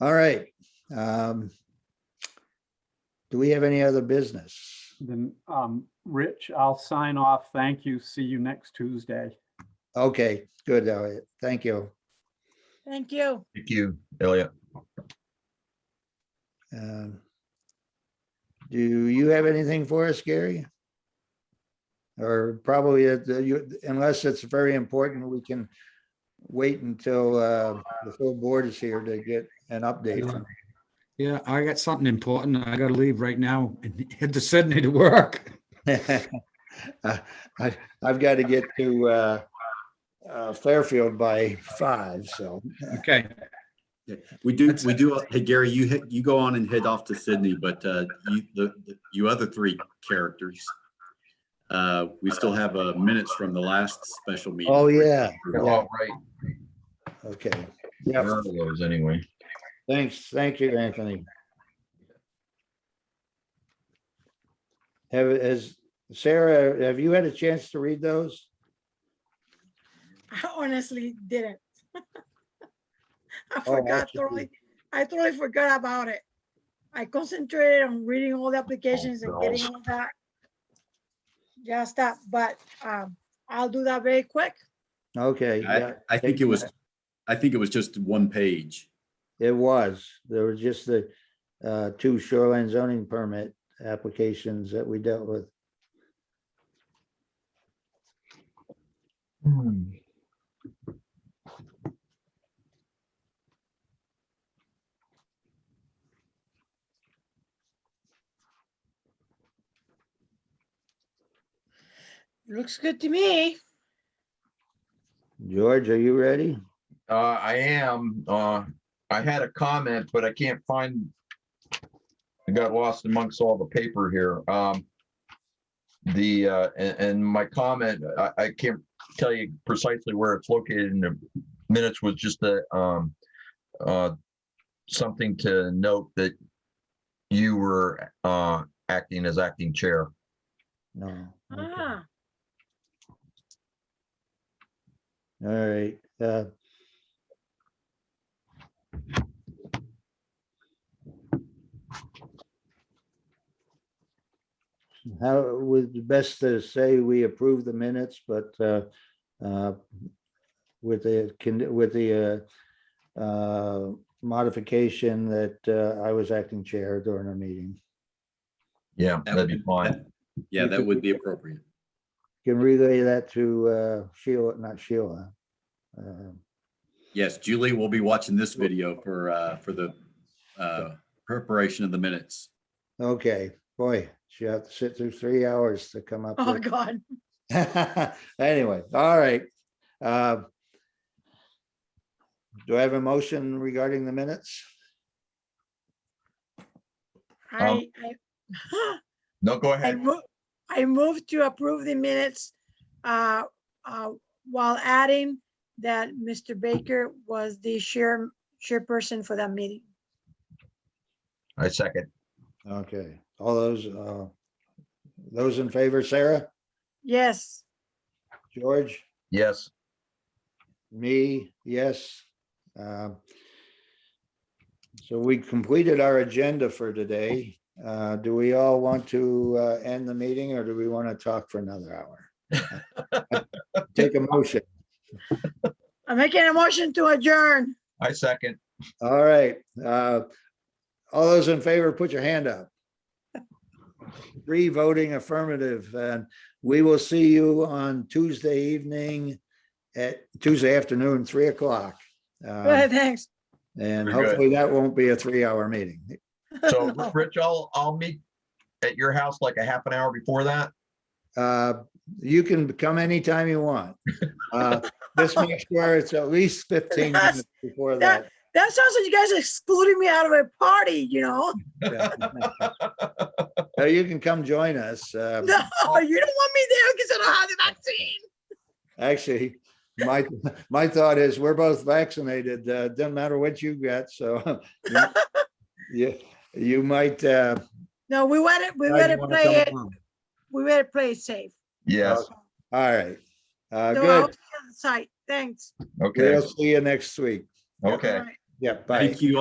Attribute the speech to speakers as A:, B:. A: All right. um, Do we have any other business?
B: Then, um, Rich, I'll sign off. Thank you. See you next Tuesday.
A: Okay, good, Elliot. Thank you.
C: Thank you.
D: Thank you, Elliot.
A: Um, Do you have anything for us, Gary? Or probably, uh, you- unless it's very important, we can wait until uh, the full board is here to get an update. from you.
E: Yeah, I got something important. I gotta leave right now and head to Sydney to work.
A: Uh, I- I've got to get to uh, uh, Fairfield by five, so.
E: Okay,
D: We do, we do, uh, hey, Gary, you, hit- you go on and head off to Sydney, but uh, you, the, the- you other three characters, uh, we still have uh, minutes from the last special meeting.
A: Oh, yeah,
F: Well, right,
A: okay. Yep,
F: there are those anyway.
A: thanks, thank you, Anthony. Have, has, Sarah, have you had a chance to read those?
C: I honestly didn't. I
A: Oh, I
C: forgot
A: see.
C: totally, I totally forgot about it. I concentrated on reading all the applications
A: Oh,
C: and getting all that. Just that, but um, I'll do that very quick.
A: Okay, yeah,
D: I, I think it was, I think it was just one page.
A: it was. There were just the uh, two shoreline zoning permit applications that we dealt with. Hmm.
C: Looks good to me.
A: George, are you ready?
F: Uh, I am, uh, I had a comment, but I can't find. I got lost amongst all the paper here. Um. The, uh, and, and my comment, I, I can't tell you precisely where it's located in the minutes was just a, um. Uh, something to note that you were, uh, acting as acting chair.
A: No. okay.
C: Ah,
A: All right. uh, How, it would be best to say we approve the minutes, but uh, uh, with the, con- with the uh, uh, modification that uh, I was acting chair during our meeting.
F: Yeah,
D: That
F: that'd
D: would-
F: be fine.
D: Yeah, that would be appropriate.
A: Can relay that to uh, Sheila, not Sheila. uh,
D: Yes, Julie will be watching this video for, uh, for the uh, preparation of the minutes.
A: Okay, boy, she had to sit through three hours to come up
C: oh,
A: with.
C: God.
A: Anyway, all right. Uh, Do I have a motion regarding the minutes? Um,
C: I, I,
F: No, go
C: I
F: ahead.
C: move, I move to approve the minutes uh, uh, while adding that Mr. Baker was the chair, chairperson for that meeting.
F: I second.
A: Okay, all those, uh, those in favor, Sarah,
C: Yes,
A: George,
F: Yes.
A: me, yes. Uh, So we completed our agenda for today. Uh, Do we all want to uh, end the meeting or do we want to talk for another hour? Take a motion.
C: I'm making a motion to adjourn.
F: I second.
A: All right. uh, All those in favor, put your hand up. Three voting affirmative, and we will see you on Tuesday evening at Tuesday afternoon, three o'clock.
C: Go ahead,
A: Um,
C: thanks.
A: And
F: Very good.
A: hopefully that won't be a three-hour meeting.
F: So Rich, I'll, I'll meet at your house like a half an hour before that.
A: Uh, You can come anytime you want. Uh, Just make sure it's at least fifteen minutes before that.
C: That sounds like you guys are excluding me out of a party, you know?
A: Yeah. So You can come join us. uh,
C: No, you don't want me there because I don't have the vaccine.
A: Actually, my, my thought is we're both vaccinated. uh, Doesn't matter what you got, so. Yeah, you might. uh,
C: No, we want it, we
A: you
C: want to
A: wanna
C: play it,
A: come along.
C: we want to play it safe.
F: Yes,
A: All right. Uh,
C: So I'll
A: Good.
C: see you on the Site, thanks.
F: Uh, okay,
A: We'll see you next week.
F: okay.
C: All right.
A: Yeah, bye.
D: Thank you